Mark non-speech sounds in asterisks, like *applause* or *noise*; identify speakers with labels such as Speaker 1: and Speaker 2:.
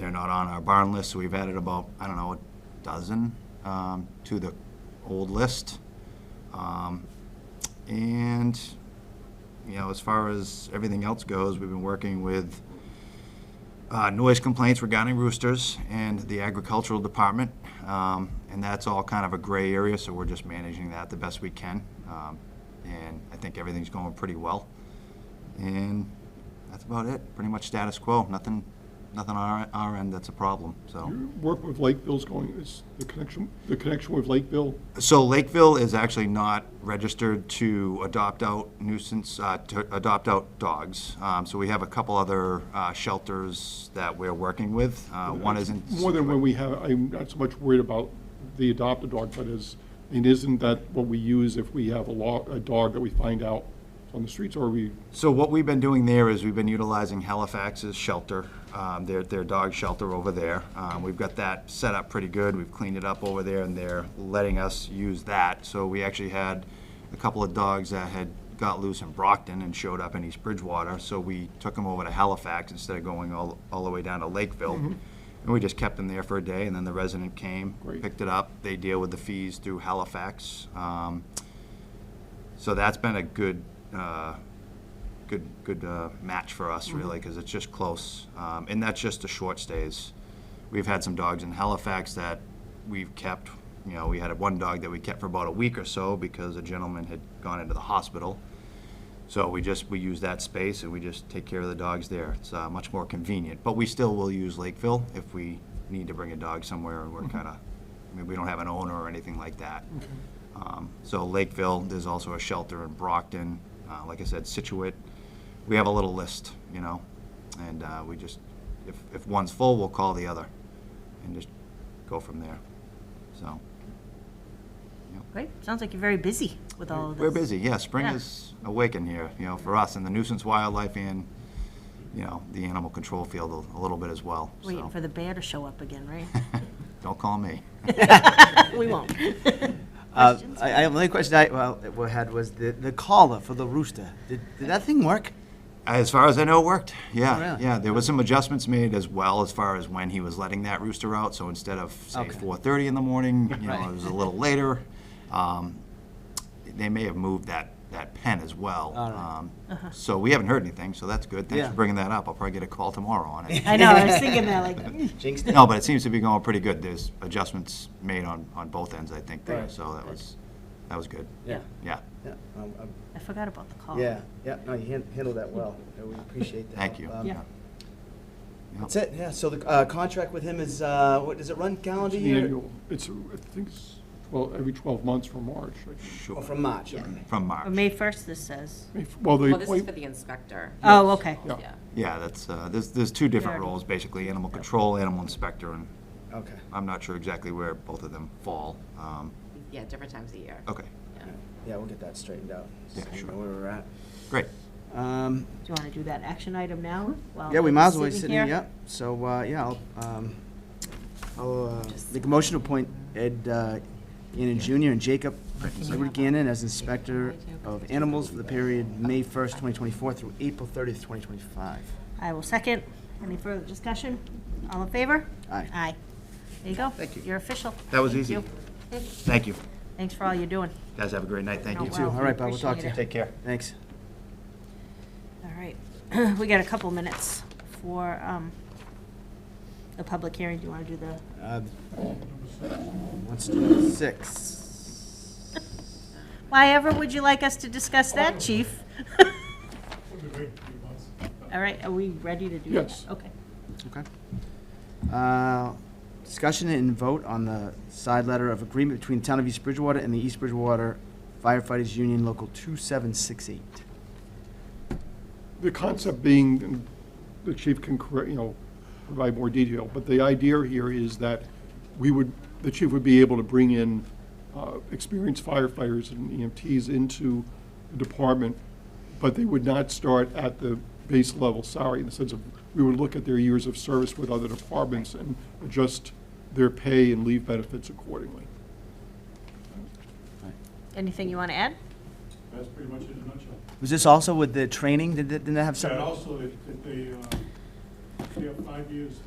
Speaker 1: not on our barn list, so we've added about, I don't know, a dozen um, to the old list. Um, And, you know, as far as everything else goes, we've been working with uh, noise complaints regarding roosters and the agricultural department. Um, And that's all kind of a gray area, so we're just managing that the best we can. Um, And I think everything's going pretty well. And that's about it. Pretty much status quo. Nothing, nothing on our, our end that's a problem, so.
Speaker 2: Work with Lakeville's going, is the connection, the connection with Lakeville,
Speaker 1: So Lakeville is actually not registered to adopt out nuisance, uh, to adopt out dogs. Um, So we have a couple other uh, shelters that we're working with. Uh, One isn't.
Speaker 2: more than when we have, I'm not so much worried about the adopted dog, but is, and isn't that what we use if we have a law, a dog that we find out on the streets, or we,
Speaker 1: So what we've been doing there is we've been utilizing Halifax's shelter, um, their, their dog shelter over there. Um, We've got that set up pretty good. We've cleaned it up over there and they're letting us use that. So we actually had a couple of dogs that had got loose in Brockton and showed up in East Bridgewater. So we took them over to Halifax instead of going all, all the way down to Lakeville. And we just kept them there for a day and then the resident came,
Speaker 2: Great.
Speaker 1: picked it up. They deal with the fees through Halifax. Um, so that's been a good, uh, good, good uh, match for us, really, because it's just close. Um, And that's just the short stays. We've had some dogs in Halifax that we've kept, you know, we had one dog that we kept for about a week or so because a gentleman had gone into the hospital. So we just, we use that space and we just take care of the dogs there. It's uh, much more convenient. But we still will use Lakeville if we need to bring a dog somewhere and we're kind of, I mean, we don't have an owner or anything like that. Um, So Lakeville, there's also a shelter in Brockton, uh, like I said, Situate. We have a little list, you know, and uh, we just, if, if one's full, we'll call the other and just go from there, so.
Speaker 3: Great. Sounds like you're very busy with all of this.
Speaker 1: We're busy, yeah, spring
Speaker 3: Yeah.
Speaker 1: is awakened here, you know, for us, and the nuisance wildlife and, you know, the animal control field a- a little bit as well,
Speaker 3: Waiting
Speaker 1: so.
Speaker 3: for the bear to show up again, right?
Speaker 4: *laughs*
Speaker 1: Don't call me.
Speaker 3: We won't.
Speaker 4: Uh, I, I, the only question I well, we had was the, the collar for the rooster. Did, did that thing work?
Speaker 1: As far as I know, it worked. Yeah,
Speaker 4: Oh, really?
Speaker 1: yeah. There was some adjustments made as well as far as when he was letting that rooster out. So instead of say
Speaker 4: Okay.
Speaker 1: 4:30 in the
Speaker 4: *laughs*
Speaker 1: morning, you know,
Speaker 4: Right.
Speaker 1: it was a little later. Um, they may have moved that that pen as well.
Speaker 4: All right. Uh-huh.
Speaker 1: Um, So we haven't heard anything. So that's good. Thanks
Speaker 4: Yeah.
Speaker 1: for bringing that up. I'll probably get a call tomorrow on it.
Speaker 3: I know, I
Speaker 4: *laughs*
Speaker 3: was thinking that, like,
Speaker 4: Jinxed it.
Speaker 1: no, but it seems to be going pretty good. There's adjustments made on on both ends, I think. There,
Speaker 4: Right.
Speaker 1: so that was that was good.
Speaker 4: Yeah.
Speaker 1: Yeah.
Speaker 4: Yeah, um, um,
Speaker 3: I forgot about the call.
Speaker 4: yeah, yeah. No, you han- handled that well. Uh, We appreciate that.
Speaker 1: Thank you.
Speaker 4: Um,
Speaker 3: Yeah.
Speaker 4: That's it. Yeah. So the uh, contract with him is uh, what does it run calendar
Speaker 2: the
Speaker 4: year?
Speaker 2: annual, it's, I think it's, well, every twelve months from March. I think.
Speaker 1: Sure.
Speaker 4: Oh, from March.
Speaker 3: Yeah.
Speaker 4: okay.
Speaker 1: From March.
Speaker 3: Or May 1st, this says.
Speaker 2: Well, the
Speaker 5: Well, this is for
Speaker 2: appointment,
Speaker 5: the inspector.
Speaker 3: Oh, okay.
Speaker 2: Yeah.
Speaker 5: Yeah.
Speaker 1: Yeah, that's, uh, there's, there's two different
Speaker 3: Yeah.
Speaker 1: roles, basically, animal control, animal inspector, and
Speaker 4: Okay.
Speaker 1: I'm not sure exactly where both of them fall. Um,
Speaker 5: Yeah, different times a year.
Speaker 1: Okay,
Speaker 5: Yeah.
Speaker 4: Yeah. yeah, we'll get that straightened out.
Speaker 1: Yeah,
Speaker 4: so you
Speaker 1: sure.
Speaker 4: know where we're at.
Speaker 1: great.
Speaker 4: Um,
Speaker 3: Do you want to do that action item now? while
Speaker 4: Yeah, we might as well be
Speaker 3: everyone's
Speaker 4: sitting here,
Speaker 3: here?
Speaker 4: yep. So, uh, yeah, I'll, um, I'll, uh,
Speaker 5: Just-
Speaker 4: make a motion to appoint Ed, uh, Gannon Junior and Jacob Edward Gannon as Inspector of Animals for the period May first, twenty twenty-four through April thirtieth, twenty twenty-five.
Speaker 3: I will second. Any further discussion? All in favor?
Speaker 4: Aye.
Speaker 3: Aye. There you go. Thank you. You're official.
Speaker 1: That was
Speaker 3: Thank
Speaker 1: easy.
Speaker 3: you.
Speaker 1: Thank you.
Speaker 3: Thanks for all you're doing.
Speaker 1: Guys, have a great night. Thank
Speaker 3: Oh,
Speaker 1: you.
Speaker 3: wow.
Speaker 4: All right, Bob, we'll talk to you.
Speaker 3: Appreciate
Speaker 1: Take care.
Speaker 4: Thanks.
Speaker 3: All right, *clears throat* we got a couple minutes for um, the public hearing. Do you want to do the,
Speaker 4: Uh, Let's do six.
Speaker 3: why ever would you like us to discuss that, chief? All right, are we ready to do that?
Speaker 2: Yes.
Speaker 3: Okay.
Speaker 4: Okay. Uh, Discussion and vote on the side letter of agreement between the Town of East Bridgewater and the East Bridgewater Firefighters Union Local 2768.
Speaker 2: the concept being, and the chief can, correct- you know, provide more detail, but the idea here is that we would, the chief would be able to bring in uh, experienced firefighters and EMTs into the department, but they would not start at the base level salary in the sense of, we would look at their years of service with other departments and adjust their pay and leave benefits accordingly.
Speaker 3: Anything you want to add?
Speaker 6: That's pretty much it in a nutshell.
Speaker 4: Was this also with the training? Did they- didn't they have
Speaker 6: And
Speaker 4: something?
Speaker 6: also, if if they, uh, if they have five years